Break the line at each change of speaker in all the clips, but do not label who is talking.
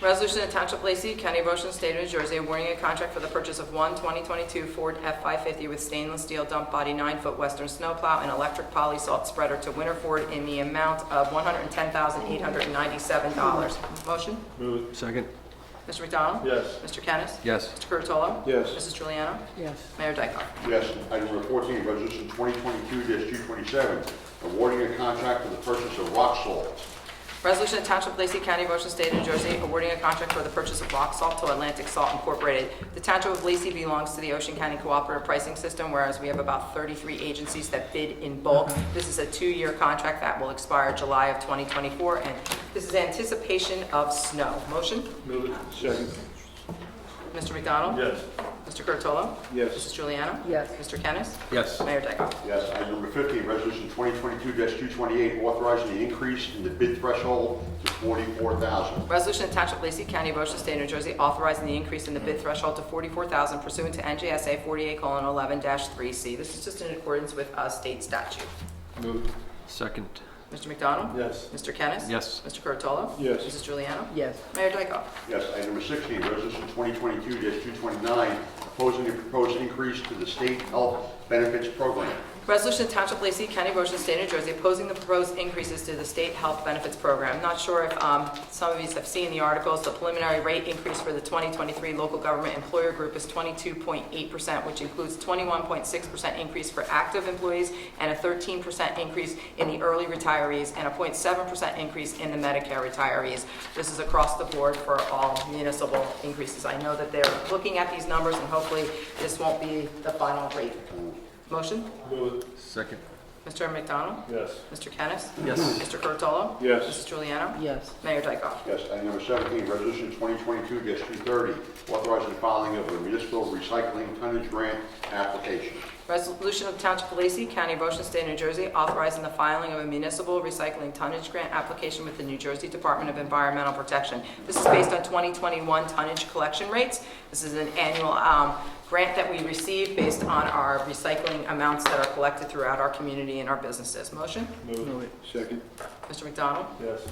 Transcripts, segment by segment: Resolution to Township of Lacey, County of Ocean, State of New Jersey, awarding a contract for the purchase of one 2022 Ford F-550 with stainless steel dump body, nine-foot western snowplow, and electric poly salt spreader to Winter Ford in the amount of $110,897. Motion?
Move it.
Second.
Mr. McDonald?
Yes.
Mr. Kennis?
Yes.
Mr. Curatolo?
Yes.
Mrs. Juliana?
yes,
Mayor Dyckoff?
Yes. Item number 14, resolution 2022-227, awarding a contract for the purchase of rock salt.
Resolution of Township of Lacey County, Ocean State, New Jersey, awarding a contract for the purchase of rock salt to Atlantic Salt Incorporated. The Township of Lacey belongs to the Ocean County Cooperative Pricing System, whereas we have about 33 agencies that bid in bulk. This is a two-year contract that will expire July of 2024, and this is anticipation of snow. Motion?
Move it. Second.
Mr. McDonald?
Yes.
Mr. Curatolo?
Yes.
Mrs. Juliana?
Yes.
Mr. Kennis?
Yes.
Mayor Dyckoff?
Yes. Item number 15, resolution 2022-228, authorizing the increase in the bid threshold to 44000
Resolution to Township of Lacey County, of Ocean State, New Jersey, authorizing the increase in the bid threshold to $44,000 pursuant to NJSA 48:11-3C. This is just in accordance with uh, state statute.
Move it.
Second.
Mr. McDonald?
Yes.
Mr. Kennis?
Yes.
Mr. Curatolo?
Yes.
Mrs. Juliana?
yes,
Mayor Dyckoff?
Yes. Item number 16, resolution 2022-229, opposing the proposed increase to the state health benefits program.
Resolution to Township of Lacey County, of Ocean State, New Jersey, opposing the proposed increases to the state health benefits program. Not sure if um, some of you have seen the articles, the preliminary rate increase for the 2023 local government employer group is 22.8%, which includes 21.6% increase for active employees and a 13% increase in the early retirees and a 0.7% increase in the Medicare retirees. This is across the board for all municipal increases. I know that they're looking at these numbers, and hopefully this won't be the final rate. Motion?
Move it.
Second.
Mr. McDonald?
Yes.
Mr. Kennis?
Yes.
Mr. Curatolo?
Yes.
Mrs. Juliana?
yes,
Mayor Dyckoff?
Yes. Item number 17, resolution 2022-230, authorizing the filing of a municipal recycling tonnage grant application.
Resolution of Township of Lacey, County of Ocean, State of New Jersey, authorizing the filing of a municipal recycling tonnage grant application with the New Jersey Department of Environmental Protection. This is based on 2021 tonnage collection rates. This is an annual um, grant that we receive based on our recycling amounts that are collected throughout our community and our businesses. Motion?
Move it. Second.
Mr. McDonald?
Yes.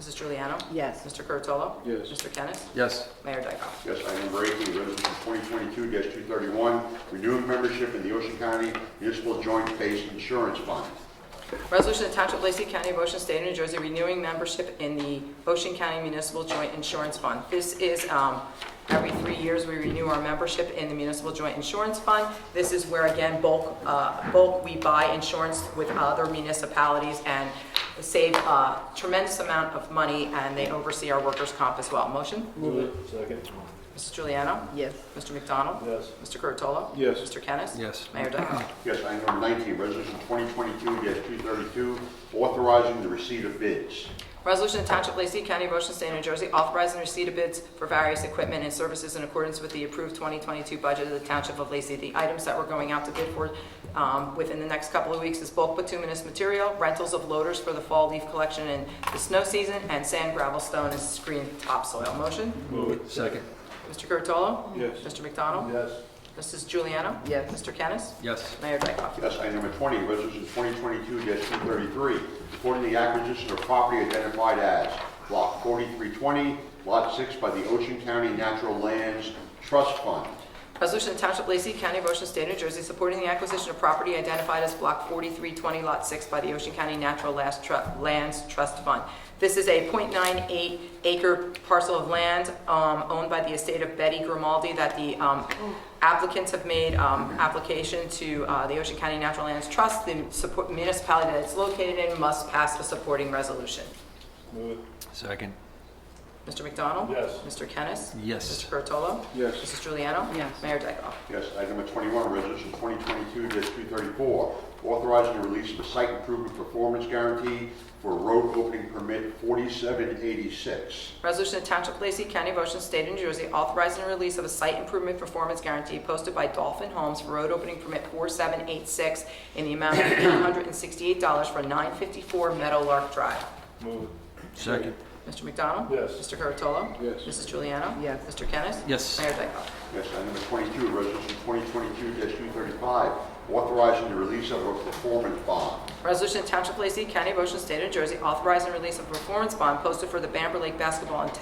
Mrs. Juliana?
yes,
Mr. Curatolo?
Yes.
Mr. Kennis?
Yes.
Mayor Dyckoff?
Yes, item number 18, resolution 2022-231, renewing membership in the Ocean County Municipal Joint Base Insurance Fund.
Resolution to Township of Lacey County, of Ocean State, of New Jersey, renewing membership in the Ocean County Municipal Joint Insurance Fund. This is, um, every three years, we renew our membership in the Municipal Joint Insurance Fund. This is where, again, bulk, uh, bulk, we buy insurance with other municipalities and save a tremendous amount of money, and they oversee our workers' comp as well. Motion?
Move it. Second.
Mrs. Juliana?
yes,
Mr. McDonald?
Yes.
Mr. Curatolo?
Yes.
Mr. Kennis?
Yes.
Mayor Dyckoff?
Yes, item number 19, resolution 2022-232, authorizing the receipt of bids.
Resolution to Township of Lacey County, Ocean State, New Jersey, authorizing receipt of bids for various equipment and services in accordance with the approved 2022 budget of the Township of Lacey. The items that we're going out to bid for um, within the next couple of weeks is bulk bituminous material, rentals of loaders for the fall leaf collection and the snow season, and sand, gravel, stone, and screened topsoil. Motion?
Move it.
Second.
Mr. Curatolo?
Yes.
Mr. McDonald?
Yes.
Mrs. Juliana?
Yes.
Mr. Kennis?
Yes.
Mayor Dyckoff?
Yes, item number 20, resolution 2022-233, reporting the acquisition of property identified as Block 4320, Lot 6 by the Ocean County Natural Lands Trust Fund.
Resolution to Township of Lacey County, of Ocean State, New Jersey, supporting the acquisition of property identified as Block 4320, Lot 6 by the Ocean County Natural Las- Tru- Lands Trust Fund. This is a .98 acre parcel of land um, owned by the estate of Betty Grimaldi that the um, applicants have made um, application to uh, the Ocean County Natural Lands Trust. The support- municipality that it's located in must pass a supporting resolution.
Move it.
Second.
Mr. McDonald?
Yes.
Mr. Kennis? Mr.
Yes.
Curatolo?
Yes.
Mrs. Juliana?
Yes.
Mayor Dyckoff?
Yes, item number 21, resolution 2022-234, authorizing the release of a site improvement performance guarantee for road opening permit 4786.
Resolution of Township of Lacey County, of Ocean State, of New Jersey, authorizing the release of a site improvement performance guarantee posted by Dolphin Homes for road opening permit 4786 in the amount of $868 for 954 Meadowlark Drive.
Move it.
Second.
Mr. McDonald?
Yes.
Mr. Curatolo?
Yes.
Mrs. Juliana?
Yes.
Mr. Kennis?
Yes.
Mayor Dyckoff?
Yes, item number 22, resolution 2022-235, authorizing the release of a performance bond.
Resolution of Township of Lacey County, of Ocean State, of New Jersey, authorizing the release of a performance bond posted for the Bamber Lake Basketball and Tennis